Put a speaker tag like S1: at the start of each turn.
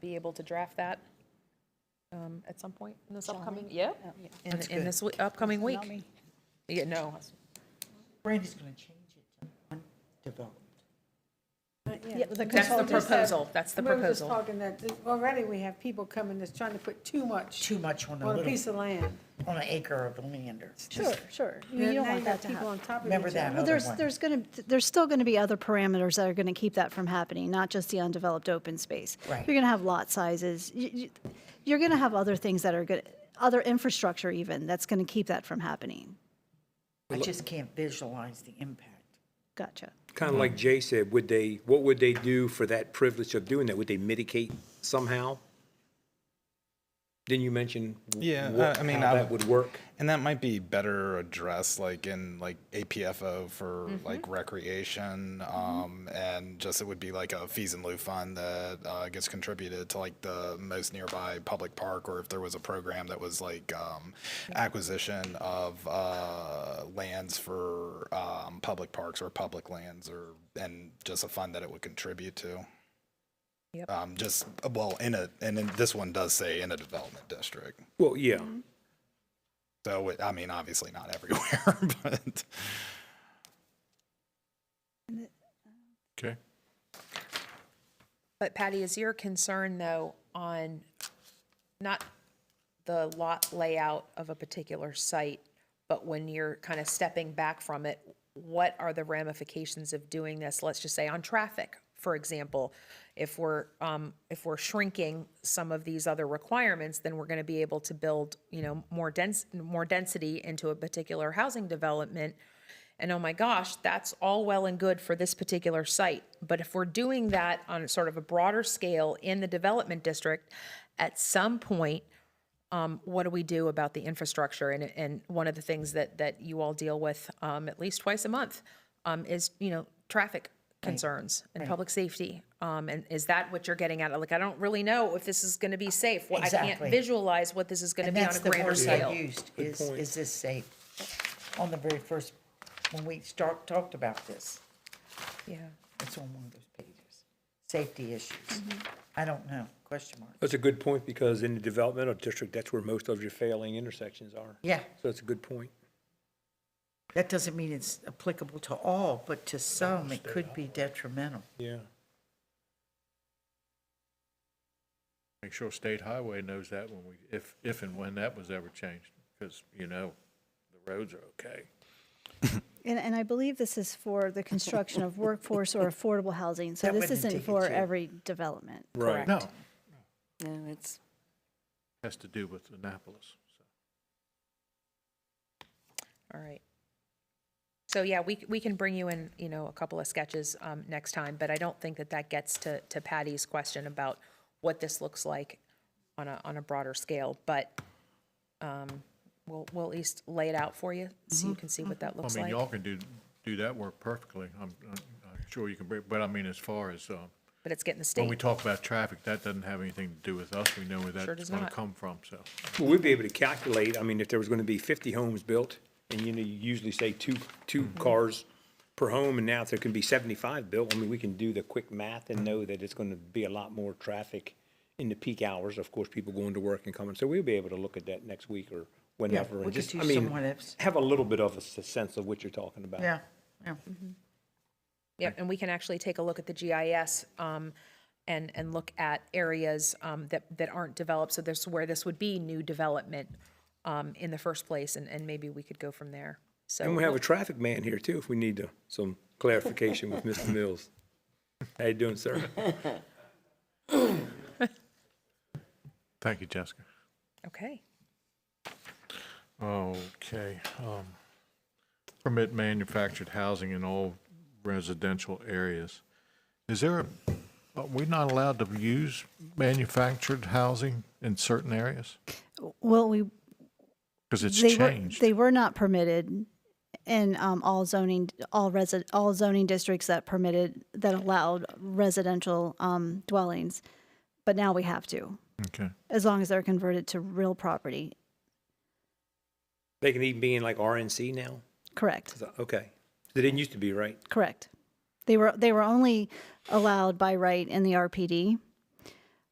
S1: be able to draft that um, at some point in this
S2: Shall
S1: upcoming,
S2: we?
S1: yeah,
S2: Yeah.
S1: in,
S3: That's
S1: in
S3: good.
S1: this w- upcoming week.
S2: Not me.
S1: Yeah, no,
S3: Brandy's going to change it to undeveloped.
S2: Yeah,
S1: that's the
S2: consultant said-
S1: proposal, that's the
S4: We were just
S1: proposal.
S4: talking that, that already we have people coming that's trying to put too much
S3: Too much on a
S4: on a
S3: little,
S4: piece of land.
S3: on an acre of land or.
S2: Sure, sure. You
S4: Now
S2: don't
S4: you got
S2: want that to
S4: people
S2: happen.
S4: on top of
S3: Remember
S4: each
S3: that
S4: other.
S2: Well, there's,
S3: one.
S2: there's going to, there's still going to be other parameters that are going to keep that from happening, not just the undeveloped open space.
S3: Right.
S2: You're going to have lot sizes. You- you- You're going to have other things that are good, other infrastructure even, that's going to keep that from happening.
S3: I just can't visualize the impact.
S2: Gotcha.
S5: Kind of like Jay said, would they, what would they do for that privilege of doing that? Would they mitigate somehow? Didn't you mention? w-
S6: Yeah,
S5: what-
S6: I- I mean,
S5: how
S6: I
S5: that
S6: would-
S5: would work?
S6: And that might be better addressed like in like APFO for like recreation. Um, and just it would be like a fees and lieu fund that uh, gets contributed to like the most nearby public park, or if there was a program that was like um, acquisition of uh, lands for um, public parks or public lands, or and just a fund that it would contribute to.
S1: Yep.
S6: Um, just well, in a and then this one does say in a development district.
S5: Well, yeah,
S6: So, it- I mean, obviously not everywhere, but
S7: Okay.
S1: But Patty, is your concern though on not the lot layout of a particular site, but when you're kind of stepping back from it, what are the ramifications of doing this? Let's just say on traffic, for example, if we're, um, if we're shrinking some of these other requirements, then we're going to be able to build, you know, more dense, more density into a particular housing development. And oh my gosh, that's all well and good for this particular site. But if we're doing that on sort of a broader scale in the development district, at some point, um, what do we do about the infrastructure? And, and one of the things that, that you all deal with, um, at least twice a month, um, is, you know, traffic concerns and public safety. Um, and is that what you're getting at? Like, I don't really know if this is gonna be safe. Well, I can't
S3: Exactly.
S1: visualize what this is gonna
S3: And
S1: be on
S3: that's
S1: a
S3: the
S1: grander
S3: word I
S1: scale.
S3: used, is, is this safe? On the very first, when we start, talked about this,
S1: Yeah.
S3: it's on one of those pages. Safety issues. I don't know, question mark.
S5: that's a good point, because in the developmental district, that's where most of your failing intersections are.
S3: Yeah,
S5: So that's a good point.
S3: that doesn't mean it's applicable to all, but to some, it could be detrimental.
S5: Yeah.
S7: Make sure State Highway knows that when we, if, if and when that was ever changed, because, you know, the roads are okay.
S2: And, and I believe this is for the construction of workforce or affordable housing. So
S3: That
S2: this
S3: wouldn't
S2: isn't
S3: take it
S2: for
S3: to-
S2: every development.
S5: Right.
S7: No,
S8: No, it's,
S7: has to do with Annapolis. so.
S1: All right. So yeah, we, c- we can bring you in, you know, a couple of sketches um, next time, but I don't think that that gets to, to Patty's question about what this looks like on a, on a broader scale, but um, we'll, we'll at least lay it out for you, so you can see what that looks
S7: I mean,
S1: like.
S7: y'all can do, do that work perfectly. I'm, I'm I'm sure you can, bring- but I mean, as far as, uh,
S1: But it's getting the
S7: when we
S1: state,
S7: talk about traffic, that doesn't have anything to do with us. We know where
S1: Sure
S7: that's
S1: does
S7: going to
S1: not.
S7: come from, so.
S5: Well, we'd be able to calculate, I mean, if there was gonna be fifty homes built, and you know, you usually say two, two
S3: Mm-hmm.
S5: cars per home, and now if there can be seventy-five built, I mean, we can do the quick math and know that it's gonna be a lot more traffic in the peak hours, of course, people going to work and coming, so we'll be able to look at that next week or whenever,
S3: we
S5: and
S3: could
S5: just,
S3: do
S5: I mean,
S3: some what-ifs.
S5: have a little bit of a s- sense of what you're talking about.
S3: Yeah, yeah.
S1: yeah, and we can actually take a look at the GIS um, and, and look at areas um, that, that aren't developed, so there's where this would be new development um, in the first place, and, and maybe we could go from there, so.
S5: And we have a traffic man here too, if we need to, some clarification with Mr. Mills. How you doing, sir?
S7: Thank you, Jessica.
S1: Okay.
S7: Okay. um, Permit manufactured housing in all residential areas. Is there, are we not allowed to use manufactured housing in certain areas?
S2: Well, we,
S7: Because it's
S2: they were-
S7: changed.
S2: They were not permitted in um, all zoning, all resi, all zoning districts that permitted, that allowed residential um, dwellings. But now we have to,
S7: Okay.
S2: as long as they're converted to real property.
S5: They can even be in like RNC now?
S2: Correct,
S5: So- Okay. They didn't used to be, right?
S2: correct. They were, they were only allowed by right in the RPD.